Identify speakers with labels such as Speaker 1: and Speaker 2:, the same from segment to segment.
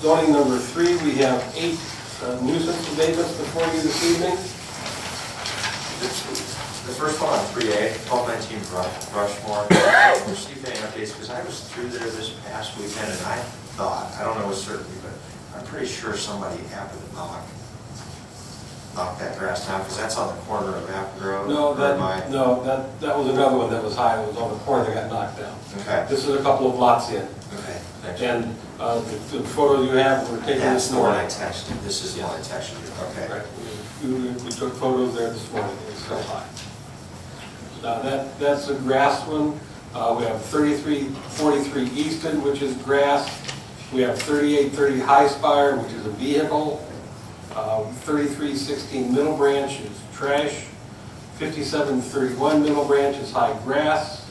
Speaker 1: Zoning number three, we have eight uh, nuisance abatements before you this evening.
Speaker 2: The first one on three A, twelve nineteen Rushmore, I haven't received any updates, because I was through there this past weekend, and I thought, I don't know with certainty, but I'm pretty sure somebody happened to knock, knock that grass down, because that's on the corner of Apple Grove.
Speaker 1: No,
Speaker 2: or my-
Speaker 1: that, no, that, that was another one that was high, it was on the corner that got knocked down.
Speaker 2: Okay,
Speaker 1: This is a couple of lots in,
Speaker 2: okay, thank you.
Speaker 1: and uh, the the photo you have, we're taking
Speaker 2: That's
Speaker 1: this
Speaker 2: the one
Speaker 1: morning.
Speaker 2: I texted, this is the one I texted you, okay.
Speaker 1: Right, we, we- we took photos there this morning, it's so high. Now, that, that's a grass one, uh, we have thirty-three, forty-three Easton, which is grass. We have thirty-eight thirty High Spire, which is a vehicle. Um, thirty-three sixteen Middle Branch is trash. Fifty-seven thirty-one Middle Branch is high grass.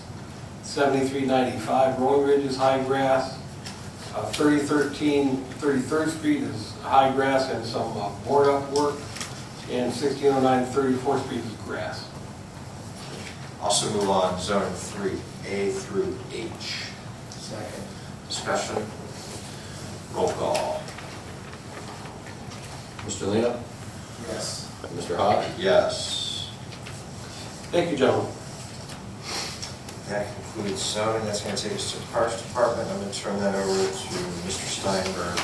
Speaker 1: Seventy-three ninety-five Rolling Ridge is high grass. Uh, 3013, 33rd Street is high grass and some uh, board up work, and 1609, 34th Street is grass.
Speaker 2: Also move on, zone three, A through H. Second. Discussion, roll call,
Speaker 3: Mr. Lino?
Speaker 1: Yes.
Speaker 3: Mr. Hawes?
Speaker 2: yes.
Speaker 1: Thank you, gentlemen.
Speaker 2: That concludes zoning, that's gonna take us to the Parks Department, I'm gonna turn that over to Mr. Steinberg.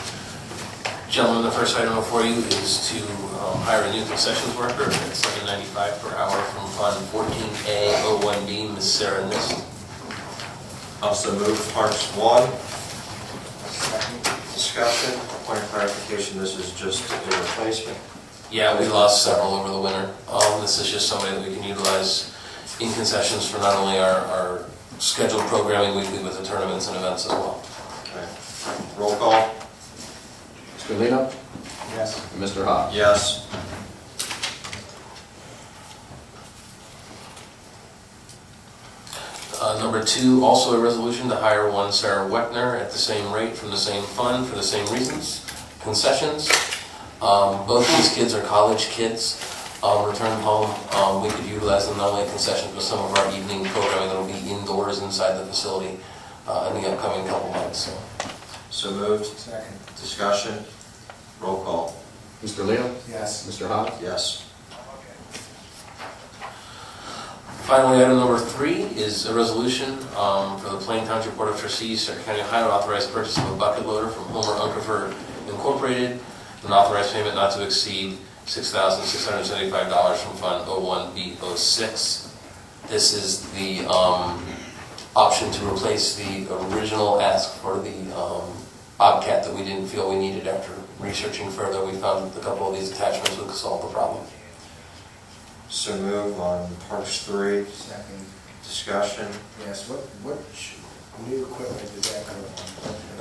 Speaker 4: Gentlemen, the first item before you is to um, hire a new concessions worker at seven ninety-five per hour from Fund fourteen A oh one B, Ms. Sarah Nist.
Speaker 2: Also move Parks one. Discussion, point of clarification, this is just a replacement.
Speaker 4: Yeah, we lost several over the winter. Um, This is just somebody that we can utilize in concessions for not only our, our scheduled programming weekly, but the tournaments and events as well.
Speaker 2: Okay. Roll call,
Speaker 3: Mr. Lino?
Speaker 1: Yes.
Speaker 3: And Mr. Hawes?
Speaker 2: yes.
Speaker 4: Uh, Number two, also a resolution to hire one Sarah Wetner at the same rate from the same fund for the same reasons, concessions. Um, Both these kids are college kids, um, return home. Um, We could utilize them not only at concessions, but some of our evening programming that'll be indoors inside the facility uh, in the upcoming couple months. So,
Speaker 2: So moved. Second. Discussion, roll call,
Speaker 3: Mr. Lino? Yes. Mr. Hawes?
Speaker 2: yes.
Speaker 4: Finally, item number three is a resolution um, for the Plain Township Board of Trustees, Stark County, Ohio, to authorize purchase of a bucket loader from Homer Unkerfer Incorporated, and authorize payment not to exceed $6,675 from Fund 01B06. This is the um, option to replace the original ask for the um, Bobcat that we didn't feel we needed after researching further. We found a couple of these attachments would solve the problem.
Speaker 2: So move on parts three,
Speaker 5: Second,
Speaker 2: discussion,
Speaker 5: yes, what, what sh- new equipment does that go on?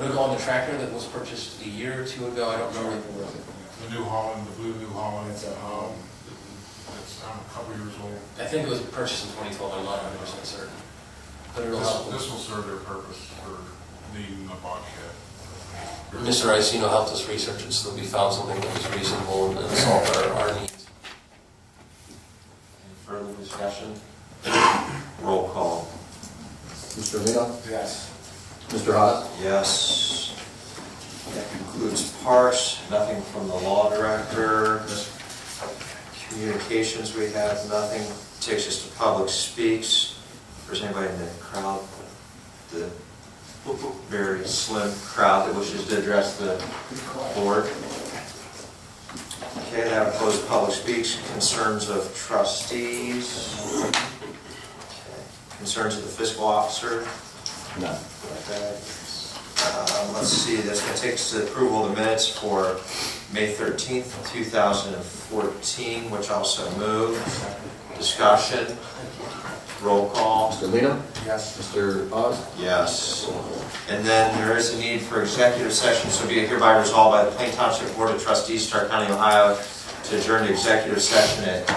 Speaker 4: It'll go on the tractor that was purchased a year or two ago, I don't remember.
Speaker 6: The New Holland, the blue New Holland,
Speaker 5: That's a-
Speaker 6: um, it's, um, a couple years old.
Speaker 4: I think it was purchased in twenty twelve, I'm not hundred percent certain. But it'll
Speaker 6: This,
Speaker 4: help.
Speaker 6: this will serve their purpose for needing a bulkhead.
Speaker 4: Mr. Iacino helped us research it, so that we found something that was reasonable and solved our, our needs.
Speaker 2: Any further discussion, roll call,
Speaker 3: Mr. Lino?
Speaker 5: Yes.
Speaker 3: Mr. Hawes?
Speaker 2: yes. That concludes parks, nothing from the law director. Communications, we have nothing, takes us to public speaks, if there's anybody in the crowd, the very slim crowd that wishes to address the board. Okay, that would close public speaks, concerns of trustees. Okay, Concerns of the fiscal officer.
Speaker 3: No.
Speaker 2: Um, Let's see, this one takes the approval of the minutes for May thirteenth, two thousand and fourteen, which also moved. Discussion, roll call,
Speaker 3: Mr. Lino?
Speaker 5: Yes.
Speaker 3: Mr. Hawes?
Speaker 2: yes. And then there is a need for executive session, so be it hereby resolved by the Plain Township Board of Trustees, Stark County, Ohio, to adjourn to executive session at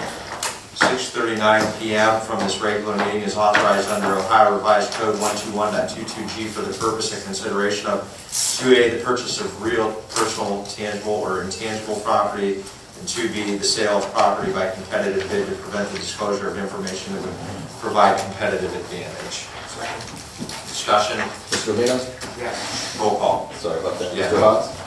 Speaker 2: six thirty-nine PM from this regular meeting is authorized under Ohio Revised Code one two one G for the purpose and consideration of two A, the purchase of real, personal, tangible, or intangible property, and two B, the sale of property by competitive bid to prevent the disclosure of information that would provide competitive advantage. Discussion,
Speaker 3: Mr. Lino?
Speaker 5: Yes.
Speaker 2: roll call.
Speaker 3: Sorry about that.
Speaker 2: Yeah.
Speaker 3: Mr. Hawes?